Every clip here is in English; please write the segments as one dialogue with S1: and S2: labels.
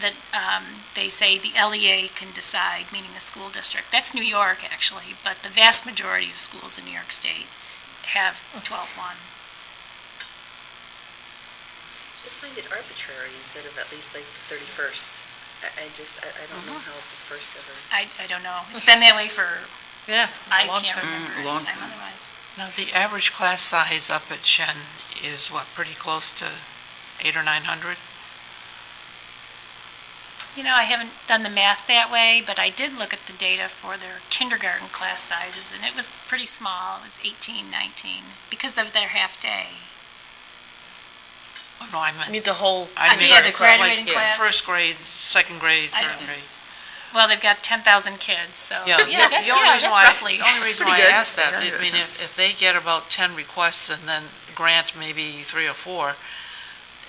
S1: that um, they say the LEA can decide, meaning the school district. That's New York, actually, but the vast majority of schools in New York State have 12-1.
S2: Just find it arbitrary instead of at least like the 31st. I, I just, I, I don't know
S3: Uh-huh.
S2: how the first ever.
S1: I, I don't know. It's been that way for,
S4: Yeah.
S1: I
S4: a long
S1: can't
S4: time.
S1: remember
S3: Mm, long
S1: any time
S3: time.
S1: otherwise.
S4: Now, the average class size up at Shen is what, pretty close to eight or 900?
S1: You know, I haven't done the math that way, but I did look at the data for their kindergarten class sizes, and it was pretty small. It was 18, 19, because of their half-day.
S4: Oh, no, I meant.
S5: Mean the whole
S4: I
S1: Uh,
S4: meant
S1: yeah, the
S4: like
S1: graduating
S4: yeah,
S1: class.
S4: First grade, second grade,
S1: I don't-
S4: third grade.
S1: Well, they've got 10,000 kids, so,
S4: Yeah,
S1: yeah, that-
S4: the- the only
S1: yeah, that's
S4: reason why-
S1: roughly.
S4: The only reason why I
S2: Pretty good.
S4: asked that, I
S2: Yeah.
S4: mean, if, if they get about 10 requests and then grant maybe three or four,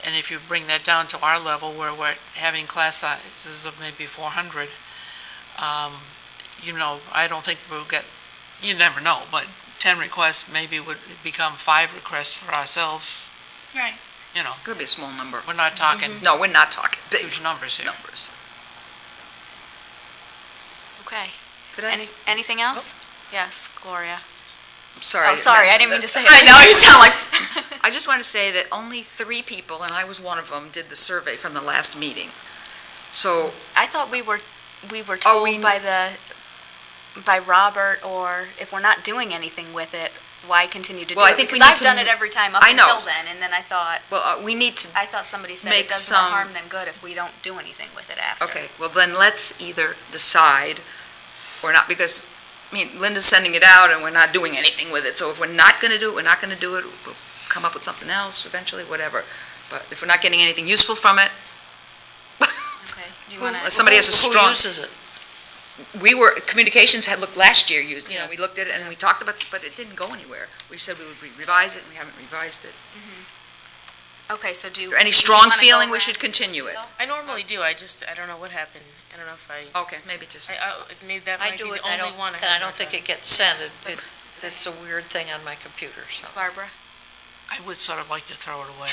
S4: and if you bring that down to our level where we're having class sizes of maybe 400, um, you know, I don't think we'll get, you never know, but 10 requests maybe would become five requests for ourselves,
S1: Right.
S4: you know,
S3: Could be a small number.
S4: we're not
S5: Mm-hmm.
S4: talking
S3: No, we're not talking big
S1: Mm-hmm.
S4: huge numbers here.
S3: numbers.
S5: Okay.
S2: Could
S5: Any, anything else? Yes, Gloria.
S3: I'm sorry.
S5: Oh, sorry, I didn't mean to say.
S3: I know, you sound like, I just want to say that only three people, and I was one of them, did the survey from the last meeting. So,
S5: I thought we were, we were
S3: Oh, we-
S5: told by the, by Robert, or if we're not doing anything with it, why continue to do it?
S3: Well, I think
S5: Because
S3: we need
S5: I've
S3: to
S5: done
S3: m-
S5: it every time up
S3: I know.
S5: until then, and then I thought,
S3: well, uh, we need to,
S5: I thought somebody said
S3: Make
S5: it does more
S3: some-
S5: harm than good if we don't do anything with it after.
S3: okay, well, then let's either decide or not, because, I mean, Linda's sending it out and we're not doing anything with it. So if we're not going to do it, we're not going to do it, we'll come up with something else eventually, whatever. But if we're not getting anything useful from it,
S5: Okay, do you wanna?
S3: unless somebody has a strong.
S4: Who uses it?
S3: we were, communications had looked, last year, you, you know,
S4: Yeah.
S3: we looked at it and we talked about, it, but it didn't go anywhere. We said we would revise it, and we haven't revised it.
S5: Okay, so do.
S3: Is there any
S5: do you
S3: strong
S5: wanna go
S3: feeling we
S5: around?
S3: should continue it?
S6: I normally do, I just, I don't know what happened, I don't know if I,
S3: Okay, maybe just,
S6: I, I- maybe that
S7: I
S6: might be the
S7: do
S6: only
S7: it, and I don't,
S6: one I
S7: and I don't
S6: haven't
S7: think
S6: done.
S7: it gets sent, It- it- it's a weird thing on my computer, so.
S5: Barbara?
S4: I would sort of like to throw it away.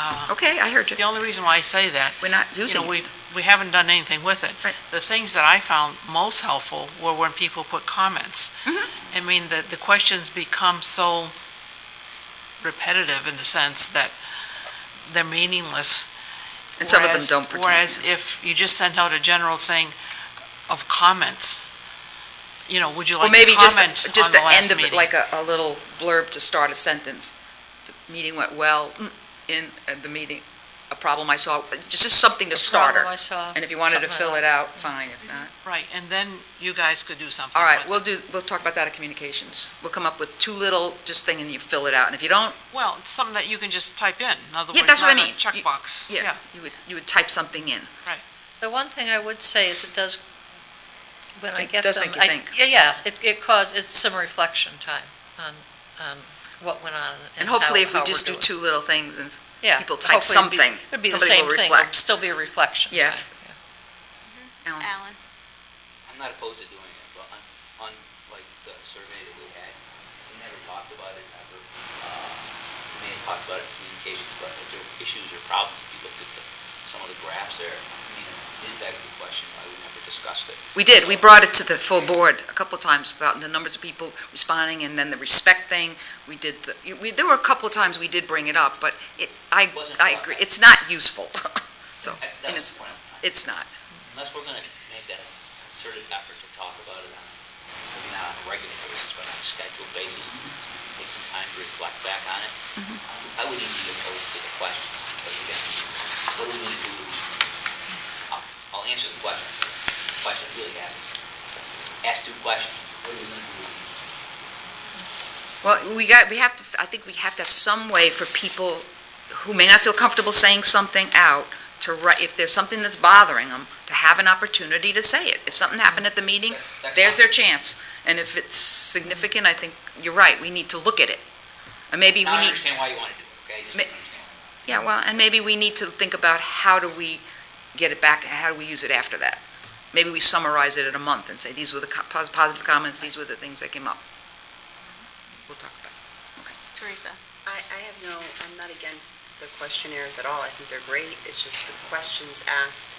S4: Uh,
S3: okay, I heard you.
S4: The only reason why I say that
S3: We're not
S4: you
S3: using
S4: know,
S3: it.
S4: we, we haven't done anything with it.
S3: Right.
S4: The things that I found most helpful were when people put comments.
S3: Mhm.
S4: I mean, the, the questions become so repetitive in the sense that they're meaningless.
S3: And some of them
S4: Whereas-
S3: don't pertain.
S4: Whereas if you just sent out a general thing of comments, you know, would you
S3: Or
S4: like
S3: maybe
S4: to
S3: just,
S4: comment
S3: the-
S4: on
S3: just
S4: the
S3: the end
S4: last
S3: of it,
S4: meeting?
S3: like a, a little blurb to start a sentence. The Meeting went well, mm, in, uh, the meeting, a problem I saw, just, just something to start
S7: Problem I
S3: her.
S7: saw,
S3: And if you wanted to
S7: something
S3: fill
S7: like
S3: it out, fine, if not.
S4: Right, and then you guys could do something
S3: All
S4: with it.
S3: right, we'll do, we'll talk about that at communications. We'll come up with two little, just thing, and you fill it out. And if you don't,
S4: Well, it's something that you can just type in, in other
S3: Yeah,
S4: words,
S3: that's what I
S4: not a
S3: mean. You-
S4: checkbox.
S3: yeah, you would, you would type something in.
S7: The one thing I would say is it does, when I
S3: It
S7: get them.
S3: does make you
S7: I-
S3: think.
S7: Yeah, yeah, it, it caused, it's some reflection time on, on what went on
S3: And
S7: and how, how
S3: hopefully, if we
S7: we're
S3: just do
S7: doing.
S3: two little things, and,
S7: Yeah,
S3: people type
S7: hopefully it'd be-
S3: something,
S7: It'd be the
S3: somebody
S7: same
S3: will
S7: thing, it'd
S3: reflect.
S7: still be a reflection.
S3: Yeah.
S7: time,
S3: Alan,
S5: Alan?
S8: I'm not opposed to doing it, but on, on like the survey that we had, we never talked about it ever. Uh, We may have talked about it in communications, but if there were issues or problems, if you looked at the, some of the graphs there, I mean, it begs the question why we never discussed it.
S3: We did, we brought it to the full board a couple times about the numbers of people responding, and then the respect thing. We did, the- you- we, there were a couple of times we did bring it up, but it, I,
S8: Wasn't
S3: I
S8: brought
S3: agree,
S8: up.
S3: it's not useful. So,
S8: That- That
S3: and
S8: was
S3: it's,
S8: the point. I'm trying-
S3: it's not.
S8: Unless we're gonna make that concerted effort to talk about it on, maybe not on a regular basis, but on a scheduled basis, take some time to reflect back on it.
S3: Mm-hmm.
S8: I wouldn't be opposed to the question, because again, what are we gonna do? I'll, I'll answer the question, the question really happens. Ask two questions, what are we gonna do?
S3: Well, we got, we have to, I think we have to have some way for people who may not feel comfortable saying something out to write, if there's something that's bothering them, to have an opportunity to say it. If something happened at the meeting,
S8: That- that's
S3: there's their
S8: fine.
S3: chance. And if it's significant, I think you're right, we need to look at it. And maybe we
S8: Now I
S3: need,
S8: understand why you wanna do it, okay? Just
S3: Ma-
S8: understand why.
S3: yeah, well, and maybe we need to think about how do we get it back, and how do we use it after that? Maybe we summarize it in a month and say, these were the co- pos- positive comments, these were the things that came up. We'll talk about it.
S5: Teresa?
S2: I, I have no, I'm not against the questionnaires at all. I think they're great. It's just the questions asked